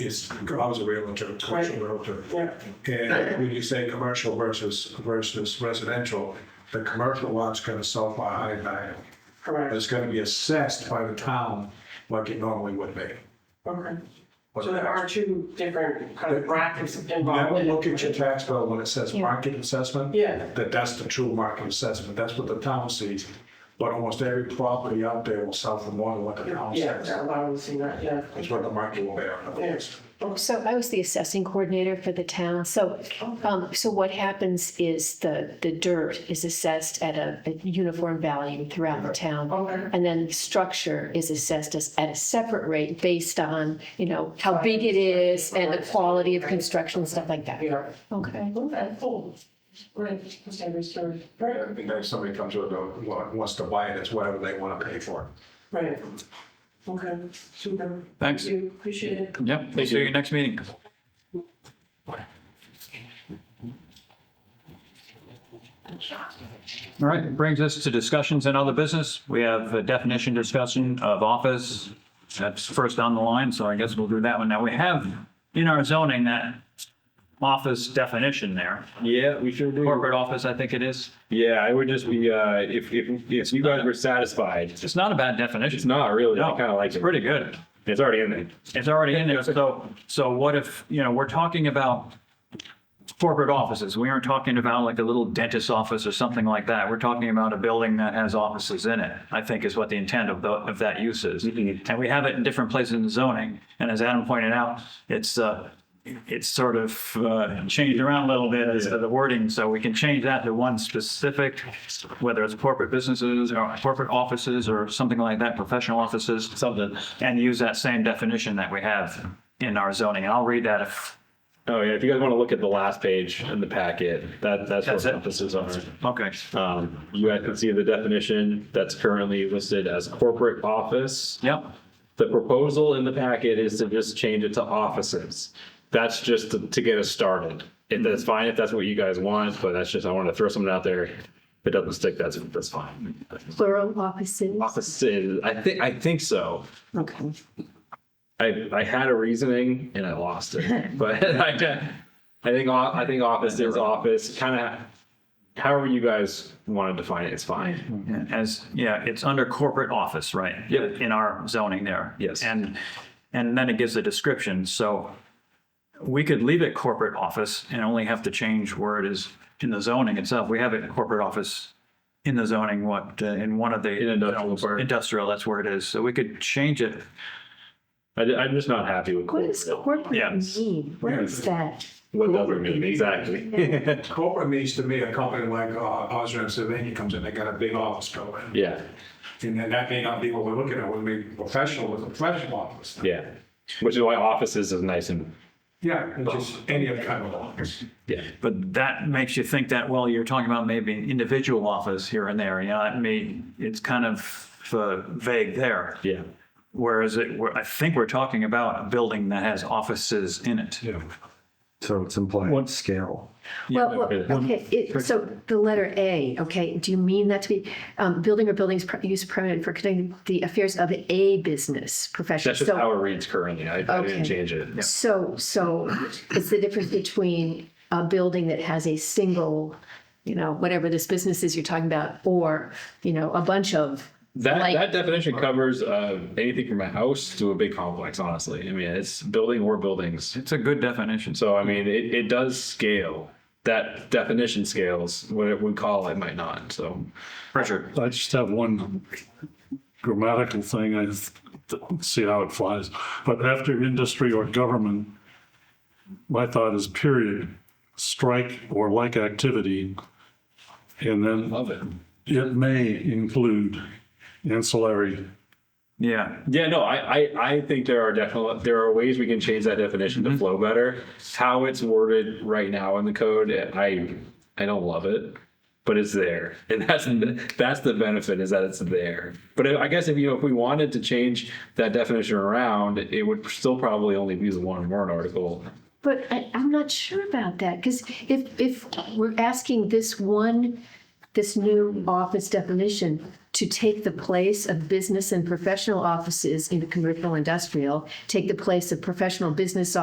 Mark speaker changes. Speaker 1: is, I was a realtor, commercial realtor.
Speaker 2: Yeah.
Speaker 1: And when you say commercial versus, versus residential, the commercial lot's gonna sell by high value.
Speaker 2: Correct,
Speaker 1: It's gonna be assessed by the town like it normally would be.
Speaker 2: okay. So there are two different kind of brackets involved.
Speaker 1: Never
Speaker 2: in it.
Speaker 1: look at your tax bill when it says market assessment.
Speaker 2: Yeah.
Speaker 1: That that's the true market assessment, that's what the town sees. But almost every property out there will sell for more than what the town
Speaker 2: Yeah,
Speaker 1: says.
Speaker 2: that allows us to see that, yeah.
Speaker 1: That's what the market will bear.
Speaker 2: Yeah.
Speaker 3: So I was the assessing coordinator for the town. So, um, so what happens is the, the dirt is assessed at a, a uniform value throughout the town.
Speaker 2: Okay,
Speaker 3: And then structure is assessed as, at a separate rate based on, you know, how big it is and the quality of construction, stuff like that.
Speaker 2: yeah,
Speaker 3: Okay.
Speaker 2: okay, cool. Great, standard story, right,
Speaker 1: And then somebody comes with, a- wants to buy it, it's whatever they wanna pay for it.
Speaker 2: right. Okay, super.
Speaker 4: Thanks.
Speaker 2: Thank you, appreciate it.
Speaker 4: Yep, see you at your next meeting. All right, brings us to discussions and other business. We have a definition discussion of office. That's first on the line, so I guess we'll do that one. Now, we have in our zoning that office definition there.
Speaker 5: Yeah, we sure do.
Speaker 4: Corporate office, I think it is.
Speaker 5: Yeah, it would just be, uh, if, if, if you guys were satisfied,
Speaker 4: It's not a bad definition.
Speaker 5: it's not really, I
Speaker 4: No,
Speaker 5: kind of like
Speaker 4: It's
Speaker 5: it.
Speaker 4: pretty good.
Speaker 5: It's already in there.
Speaker 4: It's already in there, so, so what if, you know, we're talking about corporate offices, we aren't talking about like a little dentist's office or something like that, we're talking about a building that has offices in it, I think is what the intent of, the- of that use is. And we have it in different places in zoning, and as Adam pointed out, it's, uh, it's sort of uh, changed around a little bit as to the wording, so we can change that to one specific, whether it's corporate businesses or corporate offices or something like that, professional offices, something, and use that same definition that we have in our zoning. And I'll read that if,
Speaker 5: Oh, yeah, if you guys want to look at the last page in the packet, that, that's
Speaker 4: That's
Speaker 5: what
Speaker 4: it?
Speaker 5: offices are.
Speaker 4: okay.
Speaker 5: Um, you guys can see the definition that's currently listed as corporate office.
Speaker 4: Yep,
Speaker 5: The proposal in the packet is to just change it to offices. That's just to, to get us started. And that's fine if that's what you guys want, but that's just, I want to throw something out there. If it doesn't stick, that's, that's fine.
Speaker 3: Plural offices.
Speaker 5: Offices, I think, I think so.
Speaker 3: Okay.
Speaker 5: I, I had a reasoning and I lost it, but I, I think, o- I think office is office, kind of, however you guys want to define it, it's fine.
Speaker 4: as, yeah, it's under corporate office, right?
Speaker 5: Yep.
Speaker 4: In our zoning there.
Speaker 5: Yes.
Speaker 4: And, and then it gives a description, so we could leave it corporate office and only have to change where it is in the zoning itself. We have it in corporate office in the zoning, what, uh, in one of the.
Speaker 5: In industrial park.
Speaker 4: Industrial, that's where it is, so we could change it.
Speaker 5: I, am just not happy with
Speaker 3: What does
Speaker 5: corporate.
Speaker 3: corporate
Speaker 4: Yes.
Speaker 3: mean? What is that?
Speaker 5: What does it mean, exactly?
Speaker 1: Corporate means to me, a company like uh, Osram Savini comes in, they got a big office building.
Speaker 5: Yeah,
Speaker 1: And then that may not be what we're looking at, we're being professional with a professional office.
Speaker 5: yeah, which is why offices is nice and,
Speaker 1: Yeah, it's just any other kind of office.
Speaker 5: yeah.
Speaker 4: But that makes you think that, well, you're talking about maybe an individual office here and there, you know, I mean, it's kind of uh, vague there.
Speaker 5: Yeah.
Speaker 4: Whereas it, we're- I think we're talking about a building that has offices in it.
Speaker 6: So it's implying scale.
Speaker 3: Well, well,
Speaker 5: okay.
Speaker 3: okay, it, so the letter A, okay, do you mean that to be, um, building or buildings per- use permitted for conducting the affairs of a business profession?
Speaker 5: That's just
Speaker 3: So-
Speaker 5: how it reads currently. I, I
Speaker 3: Okay.
Speaker 5: didn't change it.
Speaker 3: So, so it's the difference between a building that has a single, you know, whatever this business is you're talking about, or, you know, a bunch of,
Speaker 5: That,
Speaker 3: Like-
Speaker 5: that definition covers uh, anything from a house to a big complex, honestly. I mean, it's building or buildings.
Speaker 4: It's a good definition. So
Speaker 5: So, I mean, it, it does scale. That definition scales, what it would call it might not. So,
Speaker 4: pressure.
Speaker 6: I just have one grammatical thing, I th- see how it flies. But after industry or government, my thought is period, strike or like activity. And then
Speaker 5: love it.
Speaker 6: it may include ancillary.
Speaker 4: Yeah.
Speaker 5: Yeah, no, I, I, I think there are definitely, there are ways we can change that definition to flow better. How it's worded right now in the code, I, I don't love it, but it's there. And that's, that's the benefit is that it's there. But I guess if, you know, if we wanted to change that definition around, it would still probably only be the one warrant article.
Speaker 3: but I, I'm not sure about that, because if, if we're asking this one this new office definition to take the place of business and professional offices into commercial industrial, take the place of professional business